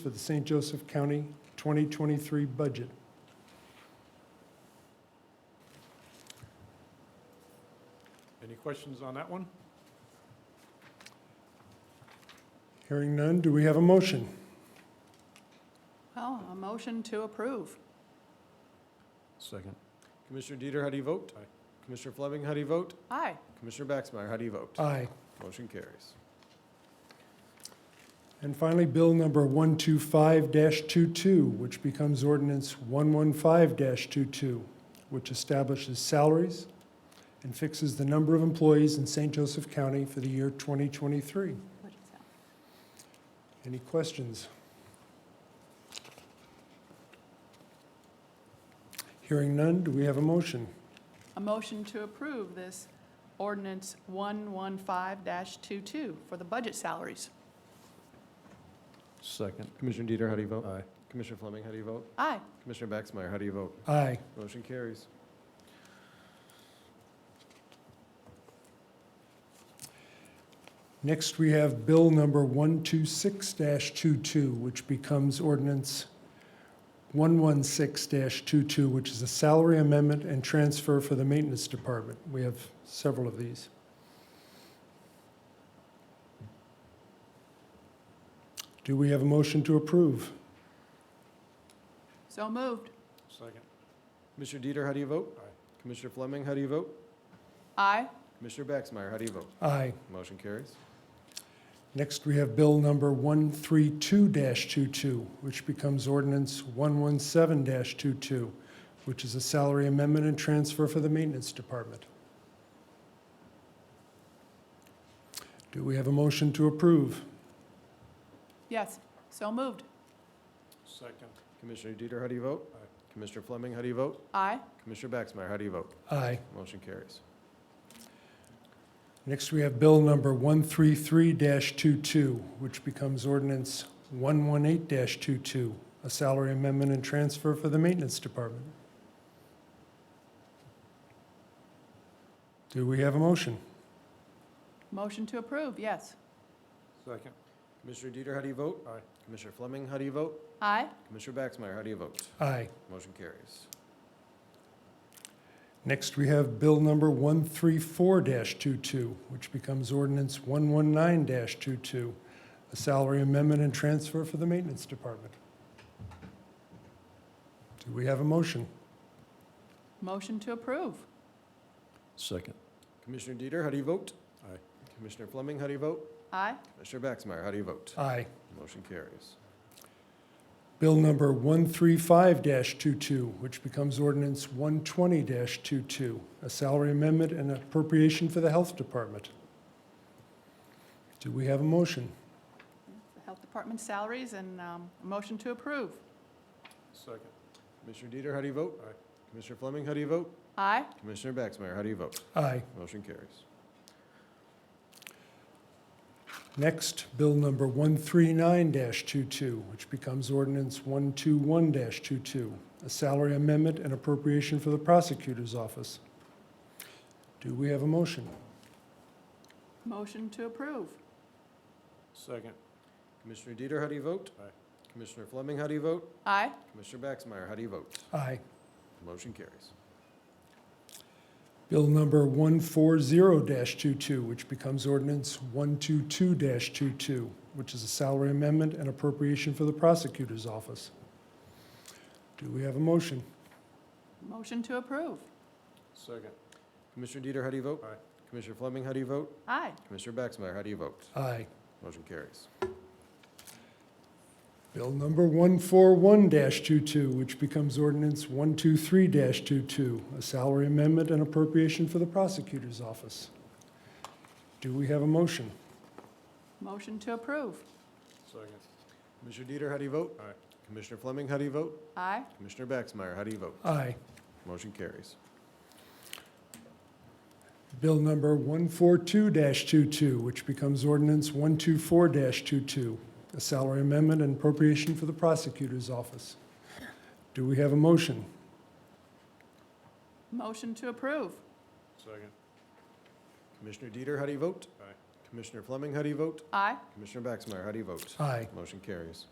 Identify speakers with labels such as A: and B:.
A: for the St. Joseph County 2023 budget.
B: Any questions on that one?
A: Hearing none, do we have a motion?
C: Well, a motion to approve.
D: Second.
B: Commissioner Dieter, how do you vote? Aye. Commissioner Fleming, how do you vote?
C: Aye.
B: Commissioner Baxmeyer, how do you vote?
A: Aye.
B: Motion carries.
A: And finally, Bill number 125-22, which becomes ordinance 115-22, which establishes salaries and fixes the number of employees in St. Joseph County for the year 2023.
C: What is that?
A: Any questions? Hearing none, do we have a motion?
C: A motion to approve this ordinance 115-22 for the budget salaries.
D: Second.
B: Commissioner Dieter, how do you vote?
D: Aye.
B: Commissioner Fleming, how do you vote?
C: Aye.
B: Commissioner Baxmeyer, how do you vote?
A: Aye.
B: Motion carries.
A: Next, we have Bill number 126-22, which becomes ordinance 116-22, which is a salary amendment and transfer for the Maintenance Department. We have several of these. Do we have a motion to approve?
C: So moved.
B: Second. Commissioner Dieter, how do you vote? Aye. Commissioner Fleming, how do you vote?
C: Aye.
B: Commissioner Baxmeyer, how do you vote?
A: Aye.
B: Motion carries.
A: Next, we have Bill number 132-22, which becomes ordinance 117-22, which is a salary amendment and transfer for the Maintenance Department. Do we have a motion to approve?
C: Yes. So moved.
B: Second. Commissioner Dieter, how do you vote? Aye. Commissioner Fleming, how do you vote?
C: Aye.
B: Commissioner Baxmeyer, how do you vote?
A: Aye.
B: Motion carries.
A: Next, we have Bill number 133-22, which becomes ordinance 118-22, a salary amendment and transfer for the Maintenance Department. Do we have a motion?
C: Motion to approve, yes.
B: Second. Commissioner Dieter, how do you vote? Aye. Commissioner Fleming, how do you vote?
C: Aye.
B: Commissioner Baxmeyer, how do you vote?
A: Aye.
B: Motion carries.
A: Next, we have Bill number 134-22, which becomes ordinance 119-22, a salary amendment and transfer for the Maintenance Department. Do we have a motion?
C: Motion to approve.
D: Second.
B: Commissioner Dieter, how do you vote?
D: Aye.
B: Commissioner Fleming, how do you vote?
C: Aye.
B: Commissioner Baxmeyer, how do you vote?
A: Aye.
B: Motion carries.
A: Bill number 135-22, which becomes ordinance 120-22, a salary amendment and appropriation for the Health Department. Do we have a motion?
C: The Health Department salaries and um, a motion to approve.
B: Second. Commissioner Dieter, how do you vote? Aye. Commissioner Fleming, how do you vote?
C: Aye.
B: Commissioner Baxmeyer, how do you vote?
A: Aye.
B: Motion carries.
A: Next, Bill number 139-22, which becomes ordinance 121-22, a salary amendment and appropriation for the prosecutor's office. Do we have a motion?
C: Motion to approve.
B: Second. Commissioner Dieter, how do you vote? Aye. Commissioner Fleming, how do you vote?
C: Aye.
B: Commissioner Baxmeyer, how do you vote?
A: Aye.
B: Motion carries.
A: Bill number 140-22, which becomes ordinance 122-22, which is a salary amendment and appropriation for the prosecutor's office. Do we have a motion?
C: Motion to approve.
B: Second. Commissioner Dieter, how do you vote? Aye. Commissioner Fleming, how do you vote?
C: Aye.
B: Commissioner Baxmeyer, how do you vote?
A: Aye.
B: Motion carries.
A: Bill number 141-22, which becomes ordinance 123-22, a salary amendment and appropriation for the prosecutor's office. Do we have a motion?
C: Motion to approve.
B: Second. Commissioner Dieter, how do you vote? Aye. Commissioner Fleming, how do you vote?
C: Aye.
B: Commissioner Baxmeyer, how do you vote?
A: Aye.
B: Motion carries.
A: Bill number 142-22, which becomes ordinance 124-22, a salary amendment and appropriation for the prosecutor's office. Do we have a motion?
C: Motion to approve.
B: Second. Commissioner Dieter, how do you vote? Aye. Commissioner Fleming, how do you vote?
C: Aye.
B: Commissioner Baxmeyer, how do you vote?
A: Aye.
B: Motion carries.